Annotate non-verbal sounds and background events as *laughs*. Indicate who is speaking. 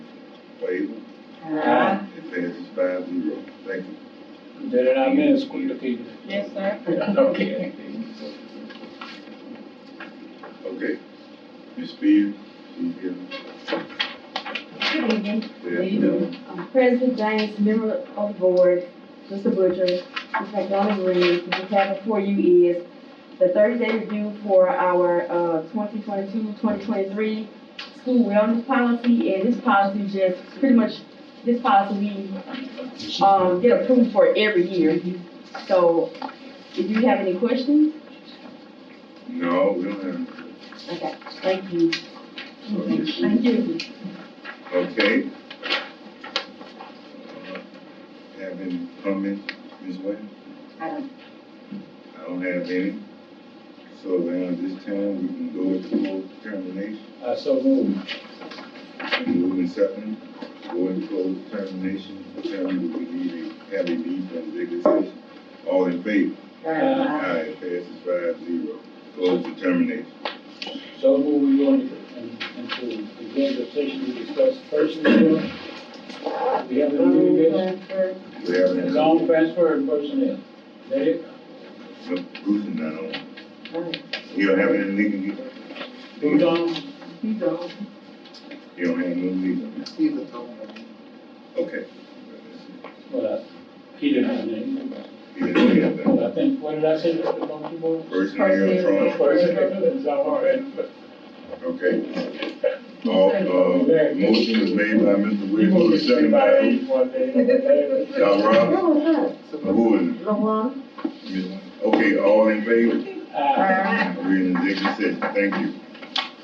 Speaker 1: favor?
Speaker 2: Aye.
Speaker 1: It passes five zero. Thank you.
Speaker 3: Better not miss, quick to keep
Speaker 2: Yes, sir.
Speaker 3: it. *laughs* Okay.
Speaker 1: Okay. Ms. Spears, she's here.
Speaker 4: Good evening.
Speaker 1: There you go.
Speaker 4: Um, President James, member of the board, Mr. Butcher, Ms. McDonald Reed, what you have before you is the thirty-day review for our, uh, 2022-2023 school wellness policy, and this policy just, pretty much, this policy we, um, get approved for every year. So, if you have any questions,
Speaker 1: No, we don't have.
Speaker 4: okay, thank you.
Speaker 1: so yes, we-
Speaker 4: Thank you.
Speaker 1: Okay. Uh, Have any comments, Ms. Wayne?
Speaker 4: I don't.
Speaker 1: I don't have any. So now at this time, we can go into closed termination.
Speaker 3: I Uh, so move.
Speaker 1: Moving second, go into closed termination. Tell me we need a, have a need for executive session. All in favor?
Speaker 3: Aye.
Speaker 1: Aye, passes five zero. Close the termination.
Speaker 3: So move, we go into, into executive session to discuss personnel. We have no new
Speaker 4: Um,
Speaker 3: business,
Speaker 4: uh,
Speaker 1: We have
Speaker 3: it's
Speaker 1: any,
Speaker 3: on transfer and personnel. That it?
Speaker 1: no, Bruce is not on. You don't have any legal,
Speaker 3: Who's on?
Speaker 4: He's on.
Speaker 1: you don't have no legal.
Speaker 5: He's a total.
Speaker 1: Okay.
Speaker 3: Well, I- he didn't have any.
Speaker 1: You don't have that.
Speaker 3: I think, what did I say, Mr. Monkey?
Speaker 1: Personnel trauma,
Speaker 3: Personnel, it's all right.
Speaker 1: okay. All, uh, motion was made by Mr.
Speaker 3: We will
Speaker 1: Williams, second by who?
Speaker 3: one day. *laughs*
Speaker 1: Doc Rob,
Speaker 4: Hello,
Speaker 1: who is it?
Speaker 4: Luana.
Speaker 1: Ms. Okay, all in favor?
Speaker 3: Uh,
Speaker 1: We're in executive session, thank you.